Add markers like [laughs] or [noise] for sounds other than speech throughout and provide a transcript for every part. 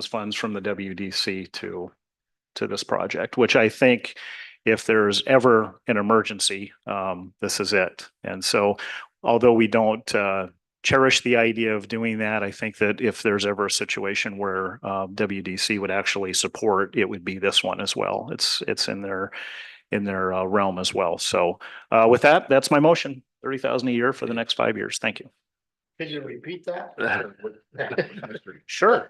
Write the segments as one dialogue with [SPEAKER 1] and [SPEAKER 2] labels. [SPEAKER 1] those funds from the WDC to, to this project, which I think if there's ever an emergency, um, this is it. And so although we don't, uh, cherish the idea of doing that, I think that if there's ever a situation where, uh, WDC would actually support, it would be this one as well. It's, it's in their, in their uh, realm as well. So, uh, with that, that's my motion, thirty thousand a year for the next five years. Thank you.
[SPEAKER 2] Can you repeat
[SPEAKER 3] [laughs]
[SPEAKER 2] that?
[SPEAKER 3] Uh, Mr.
[SPEAKER 1] Sure.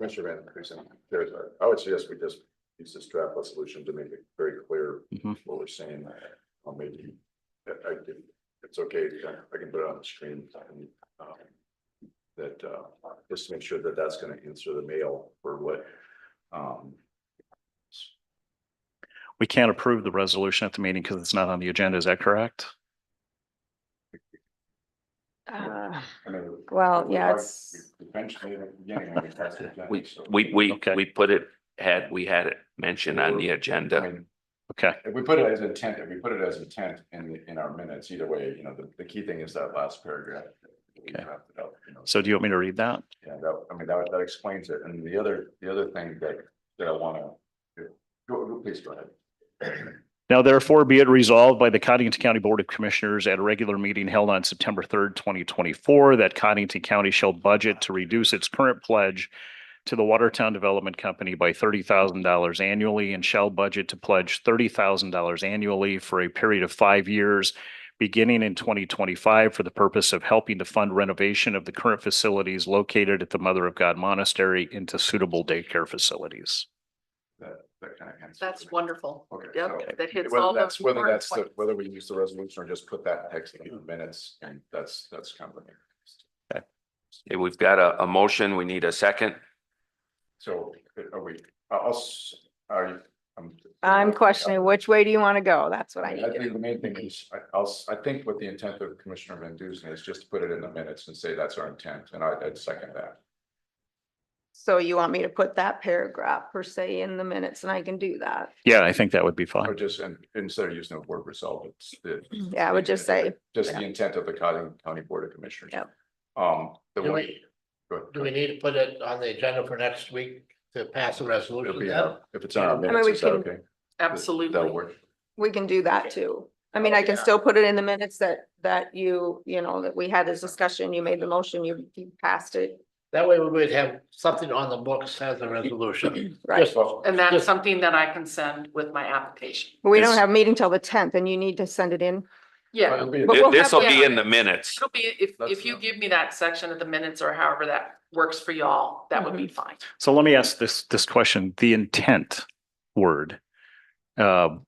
[SPEAKER 3] Commissioner Van Dusen, there's a, I would suggest we just use this draft resolution to make it very clear
[SPEAKER 4] Mm-hmm.
[SPEAKER 1] Mhm.
[SPEAKER 3] what we're saying. I'll maybe, I, I can, it's okay, I can put it on the screen. and, um, That, uh, just to make sure that that's gonna answer the mail for what, um,
[SPEAKER 1] We can't approve the resolution at the meeting because it's not on the agenda. Is that correct?
[SPEAKER 5] Uh,
[SPEAKER 6] Ah.
[SPEAKER 3] I mean.
[SPEAKER 5] Well,
[SPEAKER 3] we-
[SPEAKER 5] yeah, it's-
[SPEAKER 3] we- Eventually, at the beginning, we passed the agenda,
[SPEAKER 4] We,
[SPEAKER 3] so-
[SPEAKER 4] we, we,
[SPEAKER 1] Okay.
[SPEAKER 4] we put it, had, we had it mentioned on the agenda.
[SPEAKER 3] I mean,
[SPEAKER 1] Okay.
[SPEAKER 3] If we put it as intent, if we put it as intent in, the- in our minutes, either way, you know, the, the key thing is that last paragraph. that we
[SPEAKER 1] Okay.
[SPEAKER 3] drafted up, you know,
[SPEAKER 1] So do you want me to read that?
[SPEAKER 3] Yeah, that, I mean, that, that explains it. And the other, the other thing that, that I wanna, go, go, please go ahead.
[SPEAKER 1] Now therefore be it resolved by the Cottington County Board of Commissioners at a regular meeting held on September third, twenty twenty-four, that Cottington County shall budget to reduce its current pledge to the Watertown Development Company by thirty thousand dollars annually and shall budget to pledge thirty thousand dollars annually for a period of five years, beginning in twenty twenty-five for the purpose of helping to fund renovation of the current facilities located at the Mother of God Monastery into suitable daycare facilities.
[SPEAKER 3] That, that kind of answers.
[SPEAKER 6] That's
[SPEAKER 3] it.
[SPEAKER 6] wonderful.
[SPEAKER 3] Okay. so-
[SPEAKER 6] Yep, that hits all
[SPEAKER 3] Whether
[SPEAKER 6] those.
[SPEAKER 3] that's, whether
[SPEAKER 6] important
[SPEAKER 3] that's, the-
[SPEAKER 6] points.
[SPEAKER 3] whether we use the resolution or just put that text in the minutes, and that's, that's kind of.
[SPEAKER 4] Okay, We've got a, a motion. We need a second.
[SPEAKER 3] So, are we, I'll, s- are you? I'm-
[SPEAKER 5] I'm questioning which way do you want to go? That's what I need
[SPEAKER 3] I
[SPEAKER 5] to
[SPEAKER 3] think
[SPEAKER 5] know.
[SPEAKER 3] the main thing is, I, I'll, s- I think what the intent of Commissioner Van Dusen is just to put it in the minutes and say that's our intent, and I, I'd second that.
[SPEAKER 5] So you want me to put that paragraph per se in the minutes and I can do that?
[SPEAKER 1] Yeah, I think that would be
[SPEAKER 3] Or
[SPEAKER 1] fine.
[SPEAKER 3] just, and instead of using the word resolve, it's the.
[SPEAKER 5] Yeah, I would just say,
[SPEAKER 3] Just the intent of the Cotting County Board of Commissioners.
[SPEAKER 5] Yep.
[SPEAKER 3] Um, the
[SPEAKER 2] Do
[SPEAKER 3] one.
[SPEAKER 2] we,
[SPEAKER 3] go ahead,
[SPEAKER 2] do
[SPEAKER 3] go
[SPEAKER 2] we
[SPEAKER 3] ahead.
[SPEAKER 2] need to put it on the agenda for next week to pass a
[SPEAKER 3] It'll
[SPEAKER 2] resolution?
[SPEAKER 3] be,
[SPEAKER 2] then?
[SPEAKER 3] out. if it's on our
[SPEAKER 5] mean,
[SPEAKER 3] minutes,
[SPEAKER 5] we
[SPEAKER 3] is that
[SPEAKER 5] can-
[SPEAKER 3] okay? That'll
[SPEAKER 6] Absolutely.
[SPEAKER 3] work.
[SPEAKER 5] we can do that too. I
[SPEAKER 3] Oh,
[SPEAKER 5] mean, I can
[SPEAKER 2] Yeah.
[SPEAKER 5] still put it in the minutes that, that you, you know, that we had this discussion, you made the motion, you you passed it.
[SPEAKER 2] That way we would have something on the books as a resolution.
[SPEAKER 5] Right.
[SPEAKER 2] Just-
[SPEAKER 6] And that's
[SPEAKER 2] just-
[SPEAKER 6] something that I can send with my application.
[SPEAKER 5] But We don't
[SPEAKER 4] It's-
[SPEAKER 5] have a meeting till the tenth and you need to send it in.
[SPEAKER 6] Yeah,
[SPEAKER 3] It'll be-
[SPEAKER 5] But we'll
[SPEAKER 4] This will
[SPEAKER 6] have-
[SPEAKER 4] be in the minutes.
[SPEAKER 6] it'll be, if,
[SPEAKER 3] That's
[SPEAKER 6] if you
[SPEAKER 3] enough.
[SPEAKER 6] give me that section of the minutes or however that works for y'all, that would be fine.
[SPEAKER 1] So let me ask this, this question, the intent word. um,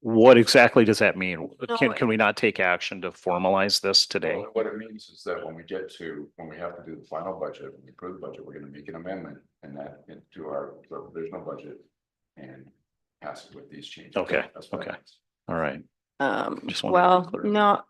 [SPEAKER 1] What exactly does that mean? Can,
[SPEAKER 5] No,
[SPEAKER 1] can we not take action to formalize this today?
[SPEAKER 3] Well, What it means is that when we get to, when we have to do the final budget, when we approve the budget, we're gonna make an amendment and that into our provisional budget. And pass it with these changes.
[SPEAKER 1] Okay,
[SPEAKER 3] That's what it
[SPEAKER 1] okay.
[SPEAKER 3] means.
[SPEAKER 1] All right,
[SPEAKER 5] Um,
[SPEAKER 1] Just wanted to be
[SPEAKER 5] well,
[SPEAKER 1] clear.
[SPEAKER 5] no,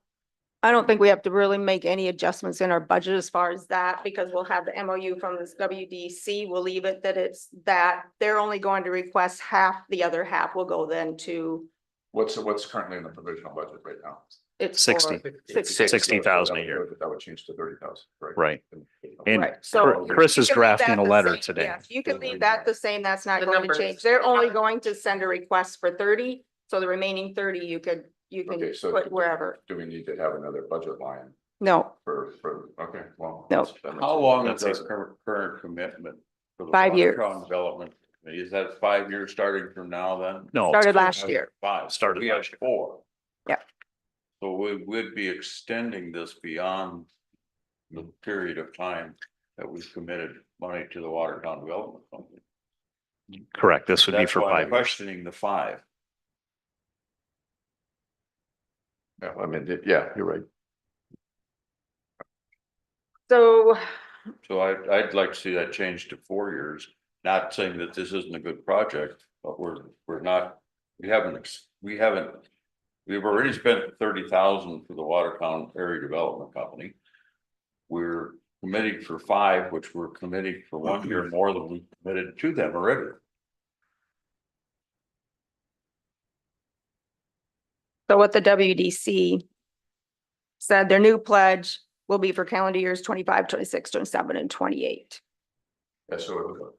[SPEAKER 5] I don't think we have to really make any adjustments in our budget as far as that, because we'll have the MOU from this WDC. We'll leave it that it's that they're only going to request half, the other half will go then to
[SPEAKER 3] What's, what's currently in the provisional budget right now?
[SPEAKER 5] it's. for-
[SPEAKER 1] sixty,
[SPEAKER 5] Six-
[SPEAKER 3] So that
[SPEAKER 1] sixty thousand a
[SPEAKER 3] would
[SPEAKER 1] year,
[SPEAKER 3] go- That would change to thirty thousand, right?
[SPEAKER 1] right?
[SPEAKER 3] Okay.
[SPEAKER 1] And
[SPEAKER 5] Right, so
[SPEAKER 3] Cr-
[SPEAKER 1] Chris
[SPEAKER 5] you
[SPEAKER 1] is
[SPEAKER 5] can leave that
[SPEAKER 1] drafting a
[SPEAKER 5] the
[SPEAKER 1] letter
[SPEAKER 5] same.
[SPEAKER 1] today.
[SPEAKER 5] Yes, You can leave that the same, that's not
[SPEAKER 6] The
[SPEAKER 5] going to
[SPEAKER 6] numbers.
[SPEAKER 5] change. They're only
[SPEAKER 6] Yeah.
[SPEAKER 5] going to send a request for thirty, so the remaining thirty you could, you can
[SPEAKER 3] Okay, so
[SPEAKER 5] put wherever.
[SPEAKER 3] Do we need to have another budget line
[SPEAKER 5] No,
[SPEAKER 3] for, for, okay, well.
[SPEAKER 5] No.
[SPEAKER 3] that's- that makes
[SPEAKER 7] How
[SPEAKER 3] sense.
[SPEAKER 7] long
[SPEAKER 1] That's
[SPEAKER 7] is our
[SPEAKER 1] easy.
[SPEAKER 7] current, current commitment? for the
[SPEAKER 5] Five
[SPEAKER 7] Watertown
[SPEAKER 5] years.
[SPEAKER 7] Development, Committee? is that five years starting from now then?
[SPEAKER 1] No,
[SPEAKER 5] started last year.
[SPEAKER 7] Five. so
[SPEAKER 1] Started
[SPEAKER 7] We have
[SPEAKER 1] last year.
[SPEAKER 7] four.
[SPEAKER 5] Yeah.
[SPEAKER 7] So we would be extending this beyond the period of time that we've committed money to the Watertown Development Company.
[SPEAKER 1] correct. This would be
[SPEAKER 7] That's
[SPEAKER 1] for
[SPEAKER 7] why I'm
[SPEAKER 1] five. years.
[SPEAKER 7] Questioning the five.
[SPEAKER 3] Yeah, I mean, yeah, you're right.
[SPEAKER 5] So
[SPEAKER 7] So I, I'd like to see that change to four years, not saying that this isn't a good project, but we're, we're not, we haven't, ex- we haven't. We've already spent thirty thousand for the Watertown Area Development Company. We're committing for five, which we're committing for one
[SPEAKER 3] [clears throat]
[SPEAKER 7] year more than we committed to them already.
[SPEAKER 5] So what the WDC said, their new pledge will be for calendar years 25, 26, 27, and twenty-eight.
[SPEAKER 3] Yeah, so